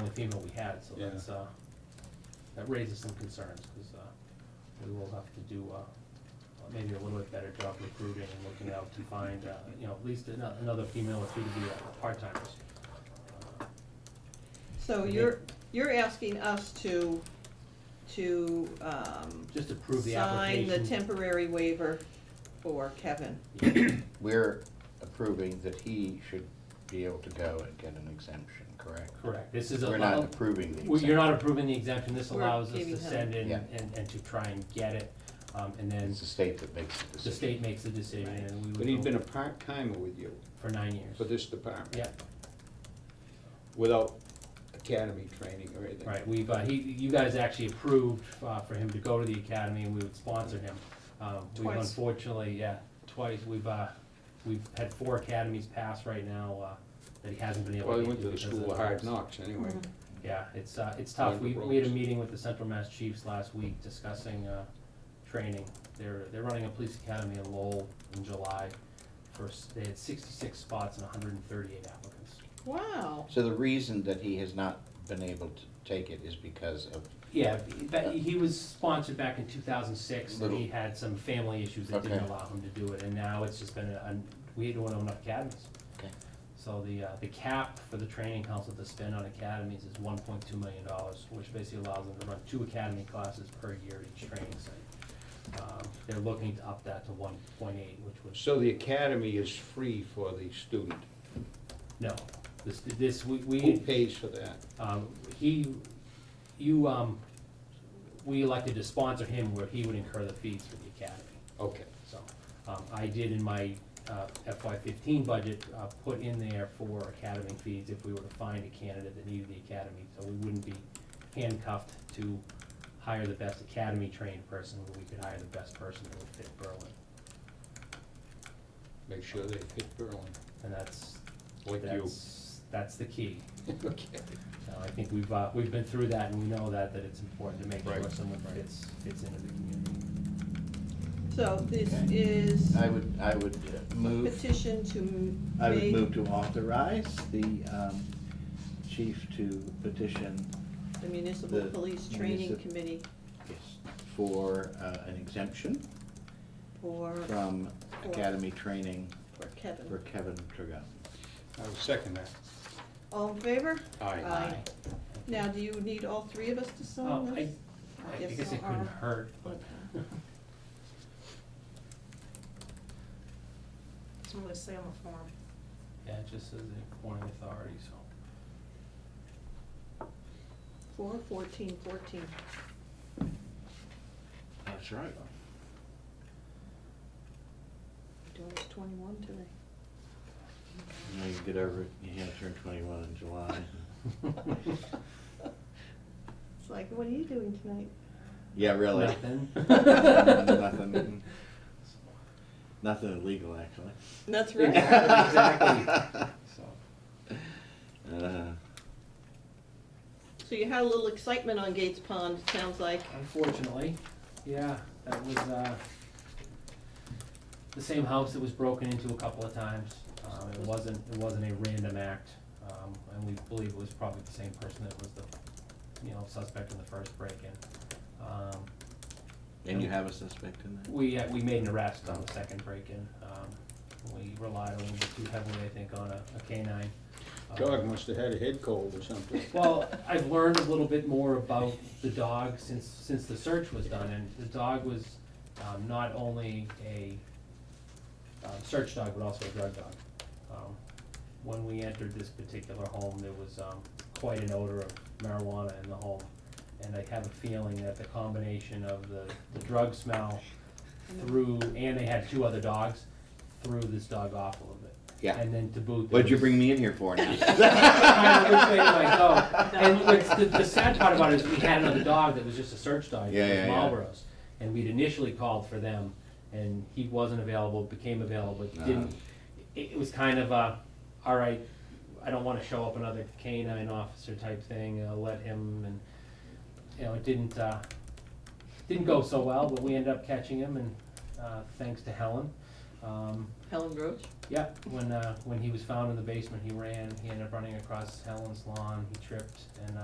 payment we had, so Yeah. that's, uh, that raises some concerns, because, uh, we will have to do, uh, uh, maybe a little bit better job recruiting and looking out to find, uh, you know, at least ano- another female or two to be uh, part-timers. Uh, So you're, you're asking us to, to, um, Just to prove the sign the application. temporary waiver for Kevin. We're approving that he should be able to go and get an exemption, correct? Correct, this is a. We're not approving the Well, exemption. You're not approving the exemption, this We're allows us giving to him- send in Yeah. and, and to try and get it, um, and then It's the state that makes the the decision. state makes the decision, Right. and we would. But he's go been a part-timer with you For nine years. for this department. Yeah, Without academy training or anything. right, we've, uh, he, you guys actually approved, uh, for him to go to the academy, and we would sponsor him. Um, we've Twice. Unfortunately, yeah, twice, we've, uh, we've had four academies pass right now, uh, that he hasn't been able Well, to he get went to the because school of of hard those. knocks anyway. Yeah, it's, uh, it's tough. Learned We, the we had a ropes. meeting with the Central Mass Chiefs last week discussing, uh, training. They're, they're running a police academy in Lowell in July. First, they had sixty-six spots and hundred and thirty-eight applicants. Wow, So the reason that he has not been able to take it is because of, Yeah, that, he was sponsored back in two thousand six, and he Little- had some family issues that didn't Okay. allow him to do it, and now it's just been, a- an- we don't own up academies. Okay. So the, uh, the cap for the training council to spend on academies is one point two million dollars, which basically allows them to run two academy classes per year at each training site. Um, They're looking to up that to one point eight, which was, So the academy is free for the student. no, this, this, we, we. Who pays for that? Um, He, you, um, we elected to sponsor him where he would incur the fees for the academy. Okay. So um, I did in my FY fifteen budget, uh, put in there for academy fees if we were to find a candidate that needed the academy. So we wouldn't be handcuffed to hire the best academy trained person, but we could hire the best person that would fit Berlin. Make sure they fit Berlin, And that's, like you. that's, that's the key. Okay. So I think we've, uh, we've been through that and we know that, that it's important to make sure Right. someone fits, fits into the community. so this Okay. is I would, I would uh, move, petition to m- I would make- move to authorize the um, chief to petition The municipal the police training municip- committee for uh, an exemption for, from academy training for for Kevin. Kevin Trigot. I'll second that. All in favor? Aye. Now, do you need all three of us to sign Um, I, this? I guess guess so, it couldn't or- hurt, but. It's really say on the form. Yeah, it just says the appointing authority, so. Four, fourteen, fourteen. That's right. Doing it twenty-one today. Now you get over, it. you have to turn twenty-one in July. It's like, what are you doing tonight? Yeah, really. Nothing. Nothing. Nothing illegal, actually. That's Exactly. So, Uh, So you had a little excitement on Gates Pond, it sounds like. Unfortunately, yeah, that was, uh, the same house that was broken into a couple of times. Um, it wasn't, it wasn't a random act, um, and we believe it was probably the same person that was the, you know, suspect in the first break-in. Um, And you have a suspect in that? We, uh, we made an arrest on the second break-in. Um, We relied a little bit too heavily, I think, on a a canine. Um, Dog must have had a head cold or something. Well, I've learned a little bit more about the dog since, since the search was done, and the dog was um, not only a um, search dog, but also a drug dog. Um, When we entered this particular home, there was um, quite an odor of marijuana in the home, and I have a feeling that the combination of the, the drug smell through, and they had two other dogs, threw this dog off a little bit. Yeah. And then to boot. there What'd you was- bring me in here for now? kind of which way do I go? oh. And what's the, the sad part about it is we had another dog that was just a search dog, it Yeah, yeah, was yeah. Marlboro's. And we'd initially called for them and he wasn't available, became available, Ah. didn't, it, it was kind of a, all right, I don't wanna show up another canine officer type thing, i let him and, you know, it didn't, uh, didn't go so well, but we ended up catching him and, uh, thanks to Helen. Um, Helen Roach? yeah, when, uh, when he was found in the basement, he ran, he ended up running across Helen's lawn, he tripped, and, uh,